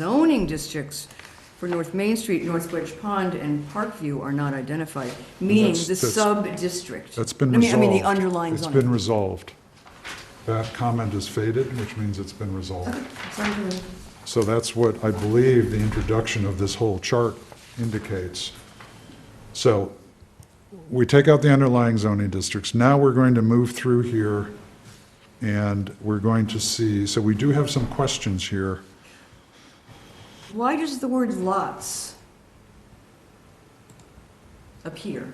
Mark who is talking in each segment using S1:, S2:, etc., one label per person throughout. S1: zoning districts for North Main Street, North Wedge Pond, and Parkview are not identified, meaning
S2: That's-
S1: the
S2: that's-
S1: sub-district.
S2: That's been
S1: I mean-
S2: resolved.
S1: I mean, the underlying
S2: It's been
S1: zoning.
S2: resolved. That comment is faded, which means it's been resolved. So that's what I believe the introduction of this whole chart indicates. So we take out the underlying zoning districts. Now we're going to move through here and we're going to see, so we do have some questions here.
S1: Why does the word lots appear?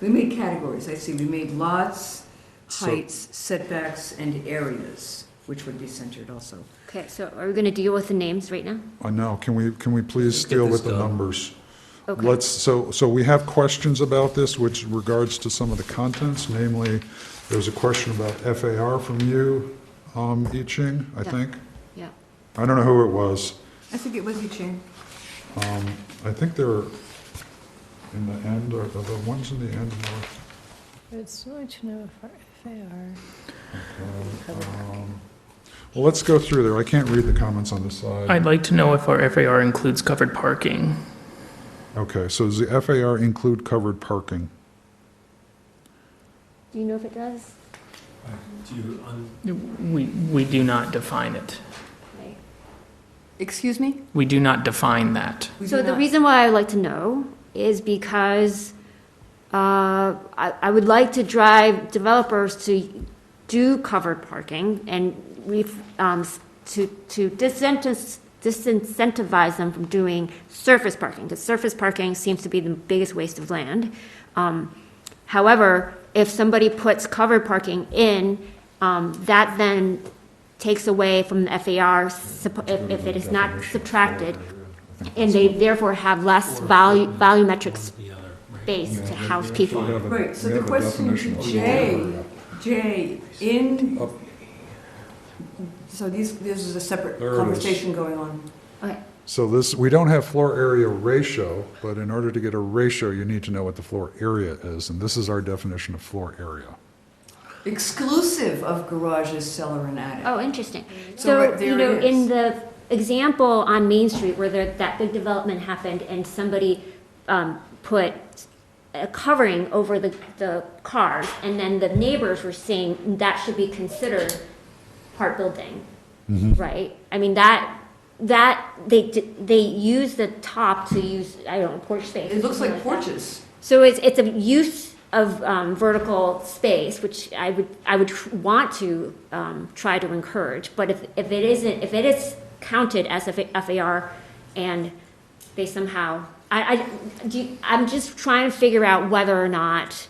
S1: We made categories, I see, we made lots,
S2: So-
S1: heights, setbacks, and areas, which would be centered also.
S3: Okay, so are we going to deal with the names right now?
S2: I know, can we, can we please
S4: Let's get
S2: deal
S4: this
S2: with the
S4: done.
S2: numbers?
S3: Okay.
S2: Let's, so, so we have questions about this, which regards to some of the contents, namely, there's a question about FAR from you, um, I Ching, I
S3: Yeah.
S2: think.
S3: Yeah.
S2: I don't know who it was. Um,
S1: I think it was you, Jane.
S2: I think they're in the end, or the the ones in the end were,
S5: It's good to know for FAR.
S2: well, let's go through there. I can't read the comments on the side.
S6: I'd like to know if our FAR includes covered parking.
S2: Okay, so does the FAR include covered parking?
S3: Do you know if it does?
S4: Do you, un-
S6: We, we do not define it.
S3: Right.
S1: Excuse me?
S6: We do not define that.
S1: We
S3: So
S1: do
S3: the
S1: not-
S3: reason why I would like to know is because uh, I I would like to drive developers to do covered parking and we've, um, s- to to disincentiv- disincentivize them from doing surface parking, because surface parking seems to be the biggest waste of land. Um, However, if somebody puts covered parking in, um, that then takes away from the FAR sup- if if it is not subtracted, and they therefore have less volu- volumetric
S4: the other, right?
S3: space to house people.
S1: Right, so the question to Jay, Jay, in,
S2: Up.
S1: so these, this is a separate
S2: There it is.
S1: conversation going on.
S3: Okay,
S2: So this, we don't have floor area ratio, but in order to get a ratio, you need to know what the floor area is, and this is our definition of floor area.
S1: Exclusive of garages, cellar, and attic.
S3: oh, interesting.
S1: So right
S3: So,
S1: there
S3: you know,
S1: it is.
S3: in the example on Main Street where there, that big development happened and somebody, um, put a covering over the, the cars, and then the neighbors were saying that should be considered part building,
S1: Mm-hmm.
S3: right? I mean, that, that, they, d- they use the top to use, I don't know, porch space.
S1: It looks
S3: something
S1: like
S3: that.
S1: porches.
S3: So it's, it's a use of um, vertical space, which I would, I would tr- want to um, try to encourage, but if, if it isn't, if it is counted as a fa- FAR and they somehow, I, I, do you- I'm just trying to figure out whether or not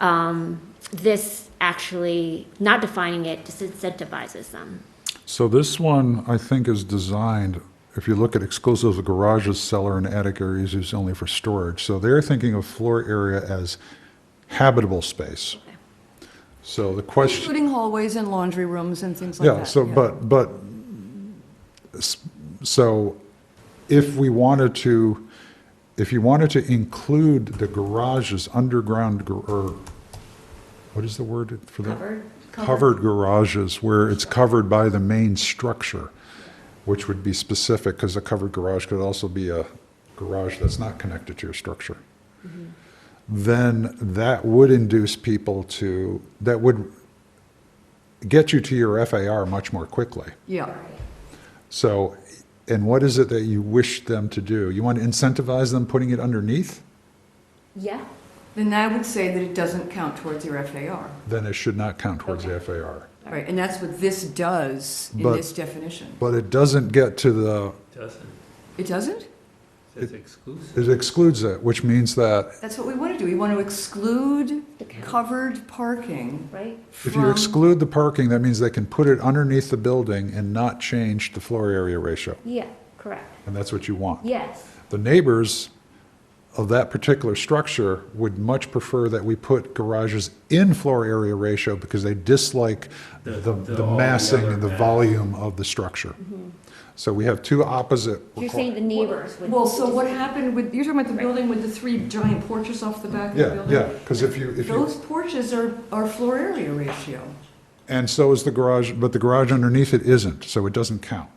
S3: um, this actually, not defining it disincentivizes them.
S2: So this one, I think, is designed, if you look at exclusive of garages, cellar, and attic areas, is only for storage. So they're thinking of floor area as habitable space. So the question,
S1: Including hallways and laundry rooms and things like that.
S2: yeah, so, but, but, s- so if we wanted to, if you wanted to include the garages, underground, gar- or, what is the word for that?
S3: Covered?
S2: covered garages where it's covered by the main structure, which would be specific, because a covered garage could also be a garage that's not connected to your structure. Then that would induce people to, that would get you to your FAR much more quickly.
S1: Yeah,
S2: So, and what is it that you wish them to do? You want to incentivize them putting it underneath?
S3: Yeah.
S1: then I would say that it doesn't count towards your FAR.
S2: Then it should not count towards the FAR.
S1: Right, and that's what this does in
S2: But-
S1: this definition.
S2: But it doesn't get to the,
S4: Doesn't,
S1: It doesn't?
S4: it's exclusive.
S2: it excludes it, which means that
S1: That's what we want to do. We want to exclude
S3: The count.
S1: covered parking
S3: Right?
S2: If you
S1: from,
S2: exclude the parking, that means they can put it underneath the building and not change the floor area ratio,
S3: Yeah, correct.
S2: and that's what you want.
S3: Yes.
S2: The neighbors of that particular structure would much prefer that we put garages in floor area ratio because they dislike
S4: The-
S2: the,
S4: the-
S2: the
S4: all the
S2: massing
S4: other
S2: and the
S4: mass.
S2: volume of the structure.
S1: Mm-hmm.
S2: So we have two opposite.
S3: You're saying the neighbors would.
S1: well, so what happened with, you're talking about the building with the three giant porches off the back of the
S2: Yeah,
S1: building?
S2: yeah, because if you, if you.
S1: Those porches are, are floor area ratio.
S2: And so is the garage, but the garage underneath it isn't, so it doesn't count.